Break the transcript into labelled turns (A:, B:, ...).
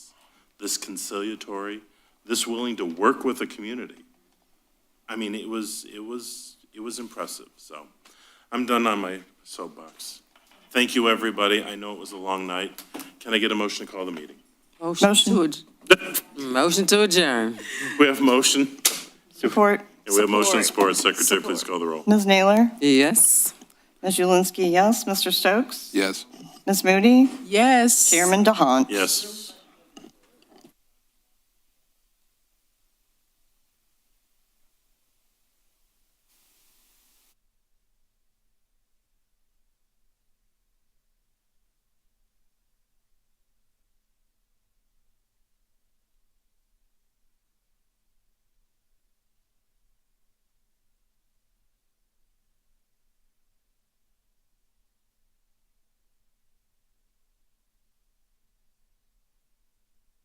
A: this conciliatory, this willing to work with the community. I mean, it was, it was, it was impressive, so. I'm done on my soapbox. Thank you, everybody. I know it was a long night. Can I get a motion to call the meeting?
B: Motion to, ad- motion to adjourn.
A: We have motion.
C: Support.
A: Yeah, We have motion and support. Secretary, please call the roll.
C: Ms. Naylor?
B: Yes.
C: Ms. Julinski, yes. Mr. Stokes?
D: Yes.
C: Ms. Moody?
E: Yes.
C: Chairman DeHaan?
A: Yes.